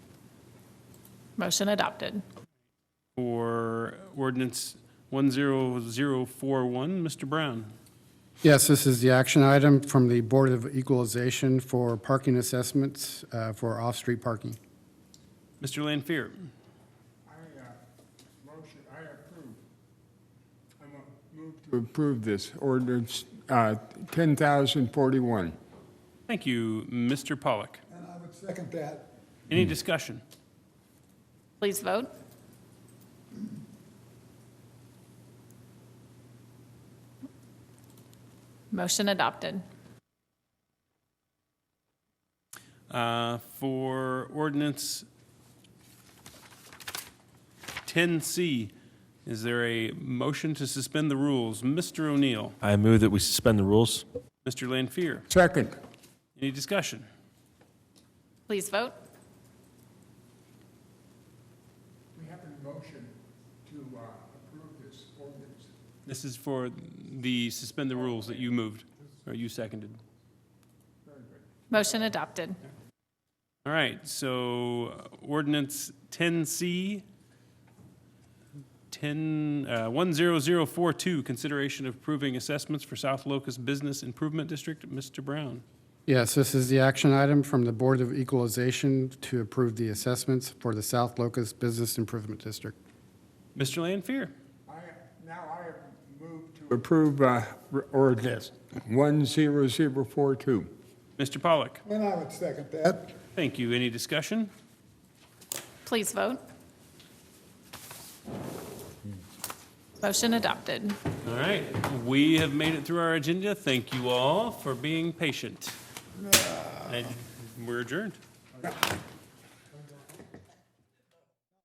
Motion adopted. for ordinance 10041. Mr. Brown? Yes, this is the action item from the Board of Equalization for parking assessments uh, for off-street parking. Mr. Lanfear? I, uh, motion, I approve. I mo- move to approve this ordinance, uh, 10,041. Thank you, Mr. Pollock. And I would second that. Any discussion? Please vote. Motion adopted. Uh, For ordinance 10C, is there a motion to suspend the rules? Mr. O'Neill? I move that we suspend the rules. Mr. Lanfear? Second. Any discussion? Please vote. We have a motion to uh, approve this ordinance. This is for the suspend the rules that you moved, or you seconded. Motion adopted. All right, so uh, ordinance 10C, 10, uh, 10042, consideration of approving assessments for South Locust Business Improvement District. Mr. Brown. Yes, this is the action item from the Board of Equalization to approve the assessments for the South Locust Business Improvement District. Mr. Lanfear. I, now I move to. Approve uh, r- ordinance 10042. Mr. Pollock. And I would second that. Thank you. Any discussion? Please vote. Motion adopted. All right, we have made it through our agenda. Thank you all for being patient. And we're adjourned.